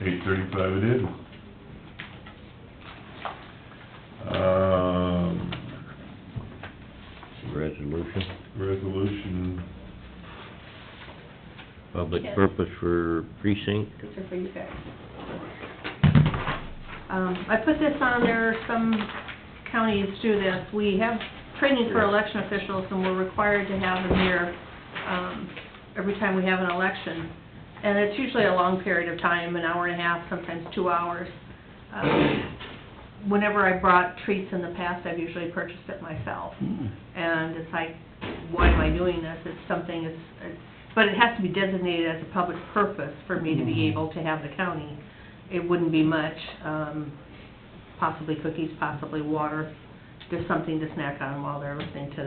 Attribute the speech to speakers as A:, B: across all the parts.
A: thirty-five it is. Um,
B: Resolution,
A: resolution,
B: public
C: Yes.
B: purpose for precinct.
C: These are for you guys. Um, I put this on there, some counties do this, we have training for election officials, and we're required to have them here, um, every time we have an election. And it's usually a long period of time, an hour and a half, sometimes two hours. Um, Whenever I brought treats in the past, I've usually purchased it myself. And it's like, why am I doing this? It's something, it's, it's- but it has to be designated as a public purpose for me to
A: Mm-hmm.
C: be able to have the county. It wouldn't be much, um, possibly cookies, possibly water, just something to snack on while they're listening to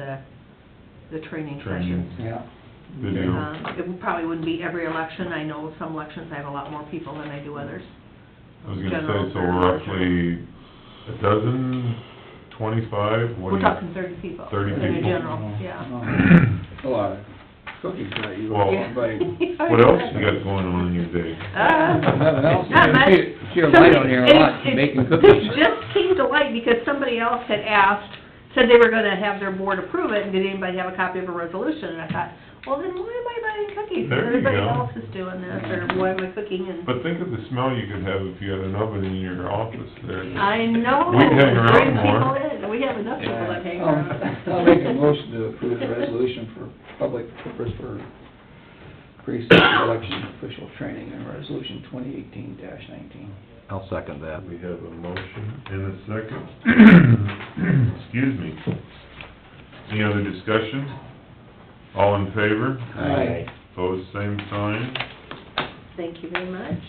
C: the, the training
A: Training.
C: sessions.
D: Yeah.
A: video,
C: Um, it probably wouldn't be every election. I know some elections I have a lot more people than I do others.
A: I was gonna
C: General
A: say, so
C: or-
A: roughly a dozen, twenty-five, what do
C: We're
A: you?
C: talking thirty people.
A: 30
C: in the
A: people?
C: general, yeah.
D: Uh, A lot of cookies that you,
A: Well-
C: Yeah.
D: but
A: Oh. What else you got going on in your day?
C: Uh,
D: nothing else.
C: Not much.
D: She- She a light on your lunch, making cookies.
C: It just came to light because somebody else had asked, said they were gonna have their board approve it, and did anybody have a copy of a resolution? And I thought, well, then why am I buying cookies?
A: There you
C: Everybody
A: go.
C: else is doing this, or why am I cooking? And
A: But think of the smell you could have if you had an oven in your office there.
C: I know.
A: We'd hang around
C: bring
A: more.
C: people in. We have enough people that hang
D: Um,
C: around.
D: I'll make a motion to approve the resolution for public purpose for precinct election official training and resolution twenty eighteen nineteen.
E: I'll second that.
A: We have a motion and a second. Excuse me. Any other discussion? All in favor?
D: Aye.
A: Opposed, same sign.
C: Thank you very much.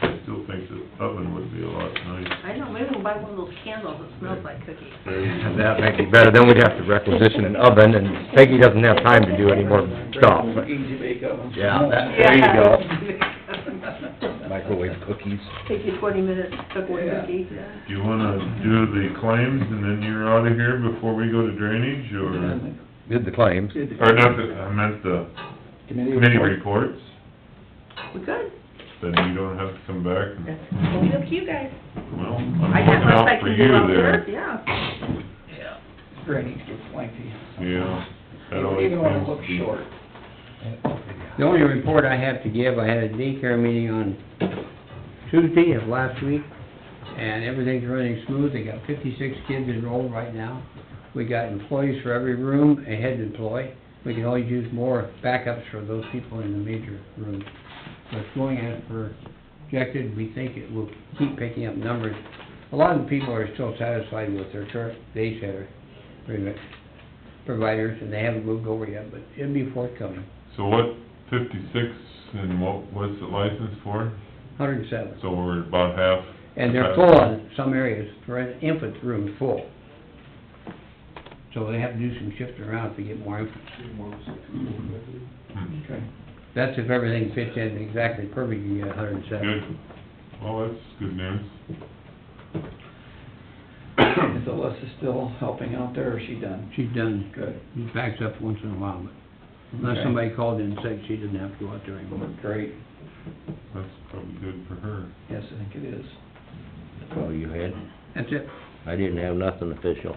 A: I still think the oven would be a lot nicer.
C: I know, maybe we'll buy one of those candles that smells like cookies.
B: That makes it better, then we'd have to requisition an oven, and Peggy doesn't have time to do any more stuff.
D: Easy bake oven.
B: Yeah, that- there you go.
C: Yeah.
B: Microwave cookies.
C: Take you twenty minutes to cook one
D: Yeah.
C: cookie.
A: Do you wanna do the claims and then you're out of here before we go to drainage, or,
B: Did the claims.
A: or not the, I meant the committee reports?
C: We could.
A: Then you don't have to come back and,
C: It's up to you guys.
A: well, I'm
C: I got
A: looking
C: my
A: out for
C: second do
A: you
C: out
A: there.
C: there, yeah.
D: Drainage gets lengthy.
A: Yeah. that
D: Even-
A: always
D: Even when it
A: comes
D: looks
A: to-
D: short.
F: The only report I have to give, I had a daycare meeting on Tuesday of last week, and everything's running smooth. They got fifty-six kids enrolled right now. We got employees for every room, a head employee. We can always use more backups for those people in the major room. So it's going as projected. We think it will keep picking up numbers. A lot of the people are still satisfied with their current daycare provi- providers, and they haven't moved over yet, but it'll be forthcoming.
A: So what, fifty-six, and what, what's the license for?
F: Hundred and seven.
A: So we're about half.
F: And they're full in some areas, for an infant room full. So they have to do some shifting around if they get more infants.
A: Hmm,
D: Okay.
F: That's if everything fits in exactly perfect, you get hundred and seven.
A: Good. Well, that's good news.
D: Is Alyssa still helping out there, or is she done?
F: She's done,
D: Good.
F: she backs up once in a while, but unless
D: Okay.
F: somebody called in sick, she doesn't have to go out there anymore.
D: Great.
A: That's probably good for her.
D: Yes, I think it is.
B: Oh, you had?
F: That's it.
B: I didn't have nothing official.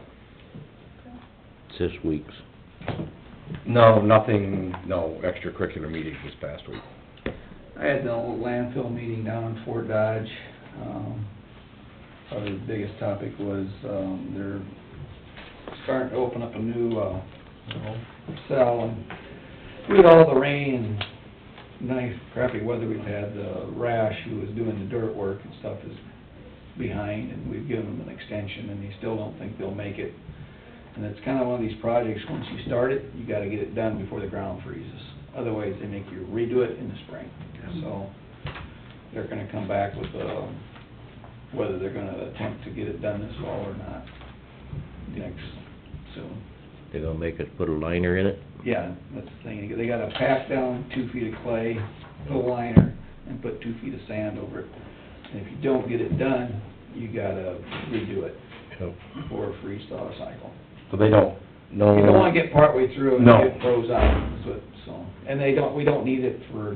B: It's this week's.
E: No, nothing, no extracurricular meetings this past week.
D: I had the old landfill meeting down in Fort Dodge. Um, Probably the biggest topic was, um, they're starting to open up a new, uh, cell. and With all the rain and nice crappy weather we've had, the Rash, who was doing the dirt work and stuff, is behind, and we've given him an extension, and he still don't think they'll make it. And it's kinda one of these projects, once you start it, you gotta get it done before the ground freezes. Otherwise, they make you redo it in the spring. So, they're gonna come back with, um, whether they're gonna attempt to get it done this fall or not, next, soon.
B: They're gonna make us put a liner in it.
D: Yeah, that's the thing, they gotta pack down two feet of clay, put a liner, and put two feet of sand over it. And if you don't get it done, you gotta redo it
B: So
D: for a freeze-thaw cycle.
B: so they don't, no...
D: You don't wanna get partway through and
B: No.
D: it froze out, so, so, and they don't, we don't need it for